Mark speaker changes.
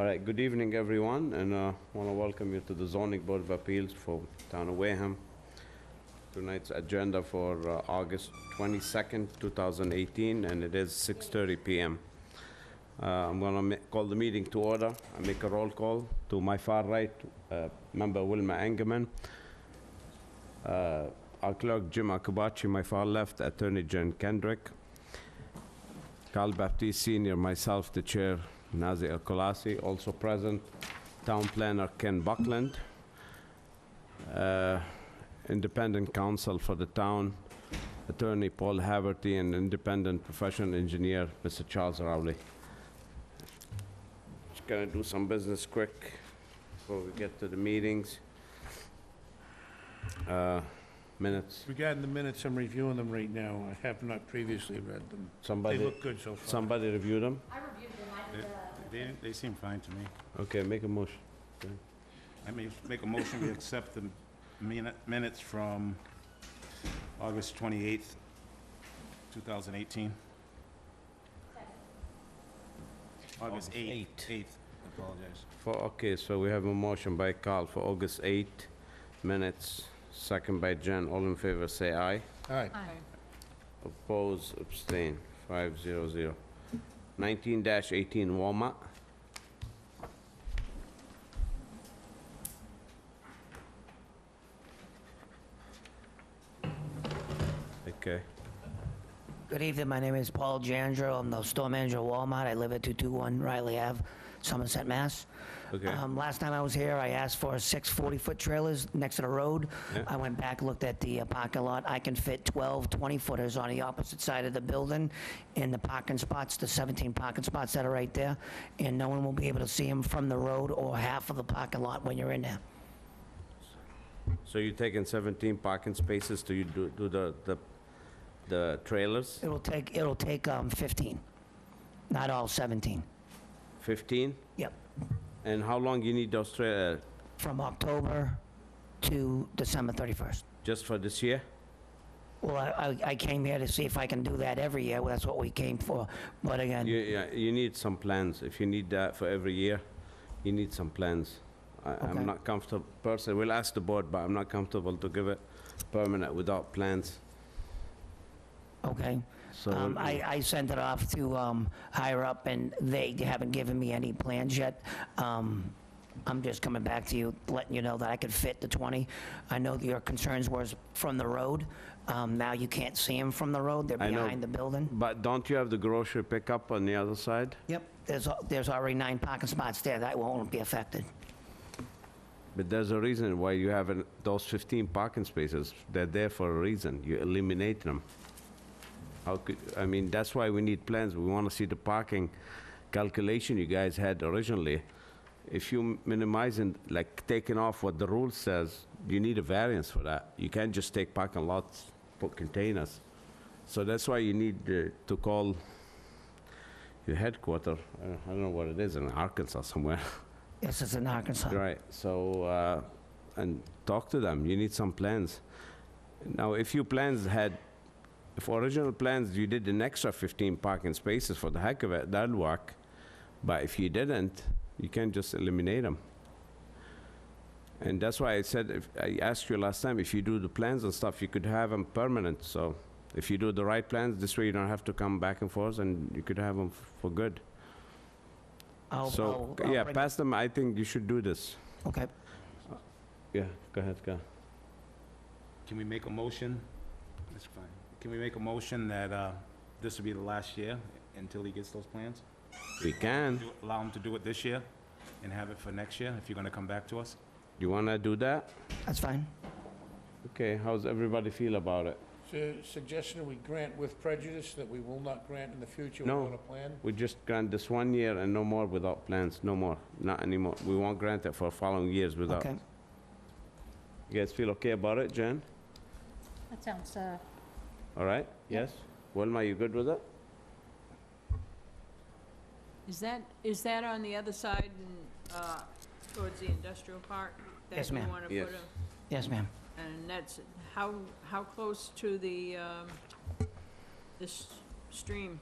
Speaker 1: All right, good evening, everyone, and I want to welcome you to the zoning board of appeals for town of Wareham. Tonight's agenda for uh, August 22nd, 2018, and it is 6:30 PM. Uh, I'm going to call the meeting to order. I make a roll call. To my far right, uh, member Wilma Engerman. Uh, Our clerk, Jim Akabachi, my far left, attorney Jen Kendrick. Carl Baptiste Senior, myself, the chair, Nazi El Kolasi, also present, town planner Ken Buckland, uh, independent counsel for the town, attorney Paul Haverty, and independent professional engineer, Mr. Charles Rowley. Just gonna do some business quick before we get to the meetings. Uh, Minutes,
Speaker 2: Regarding the minutes, I'm reviewing them right now. I have not previously read them. They
Speaker 1: somebody,
Speaker 2: look good so far.
Speaker 1: somebody review them?
Speaker 3: I reviewed them, I did the, uh,
Speaker 4: They, they seem fine to me.
Speaker 1: Okay, make a motion.
Speaker 4: I may make a motion, we accept the minu- minutes from August 28th, 2018. August 8th, 8th, apologize.
Speaker 1: For, okay, so we have a motion by Carl for August 8 minutes, second by Jen. All in favor, say aye.
Speaker 2: All right,
Speaker 1: Oppose, abstain, 500. 19-18 Walmart. Okay,
Speaker 5: Good evening, my name is Paul Jandro, I'm the store manager at Walmart, I live at 221 Riley Ave, Somerset, Mass.
Speaker 1: okay.
Speaker 5: Um, Last time I was here, I asked for six 40-foot trailers next to the road.
Speaker 1: Yeah.
Speaker 5: I went back, looked at the uh, parking lot, I can fit 12 20-footers on the opposite side of the building, and the parking spots, the 17 parking spots that are right there, and no one will be able to see them from the road or half of the parking lot when you're in there.
Speaker 1: So you're taking 17 parking spaces to you do do the, the the trailers?
Speaker 5: It'll take, it'll take um, 15, not all 17.
Speaker 1: 15?
Speaker 5: Yep.
Speaker 1: And how long you need uh, those trailers?
Speaker 5: from October to December 31st.
Speaker 1: Just for this year?
Speaker 5: Well, I, I- I came here to see if I can do that every year, that's what we came for, but
Speaker 1: You,
Speaker 5: again,
Speaker 1: yeah, you need some plans. If you need that for every year, you need some plans. I,
Speaker 5: Okay.
Speaker 1: I'm not comfortable, personally, we'll ask the board, but I'm not comfortable to give it permanent without plans.
Speaker 5: okay?
Speaker 1: So,
Speaker 5: Um,
Speaker 1: we'll-
Speaker 5: I, I sent it off to um, higher up, and they haven't given me any plans yet. Um, I'm just coming back to you, letting you know that I could fit the 20. I know that your concerns was from the road, Um, now you can't see them from the road, they're
Speaker 1: I know.
Speaker 5: behind the building.
Speaker 1: but don't you have the grocery pickup on the other side?
Speaker 5: Yep, there's, al- there's already nine parking spots there, that won't be affected.
Speaker 1: But there's a reason why you have an- those 15 parking spaces. They're there for a reason. You eliminate them. How could, I mean, that's why we need plans. We want to see the parking calculation you guys had originally. If you minimize and, like, taking off what the rule says, you need a variance for that. You can't just take parking lots, put containers. So that's why you need uh, to call your headquarter. I don't- I don't know what it is, in Arkansas somewhere.
Speaker 5: This is in Arkansas.
Speaker 1: Right, so, uh, and talk to them, you need some plans. Now, if your plans had, if original plans, you did an extra 15 parking spaces for the heck of it, that'll work. But if you didn't, you can't just eliminate them. And that's why I said, if, I asked you last time, if you do the plans and stuff, you could have them permanent, so if you do the right plans, this way you don't have to come back and forth, and you could have them for good.
Speaker 5: I'll-
Speaker 1: So,
Speaker 5: I'll- I'll
Speaker 1: yeah,
Speaker 5: bring-
Speaker 1: pass them, I think you should do this.
Speaker 5: Okay,
Speaker 1: Yeah, go ahead, go.
Speaker 4: Can we make a motion? That's fine. Can we make a motion that uh, this will be the last year until he gets those plans?
Speaker 1: We can.
Speaker 4: Do- Allow him to do it this year and have it for next year, if you're gonna come back to us?
Speaker 1: You want to do that?
Speaker 5: that's fine.
Speaker 1: Okay, how's everybody feel about it?
Speaker 2: so suggestion we grant with prejudice that we will not grant in the future
Speaker 1: No.
Speaker 2: without a plan?
Speaker 1: We just grant this one year and no more without plans, no more, not anymore. We won't grant it for following years without.
Speaker 5: Okay.
Speaker 1: You guys feel okay about it, Jen?
Speaker 3: that sounds, uh,
Speaker 1: All right? Yes? Wilma, you good with it?
Speaker 6: Is that, is that on the other side and, uh, towards the industrial park?
Speaker 5: Yes, ma'am.
Speaker 6: That you
Speaker 1: Yes.
Speaker 6: wanna put a,
Speaker 5: Yes, ma'am.
Speaker 6: and that's, how, how close to the, um, this stream?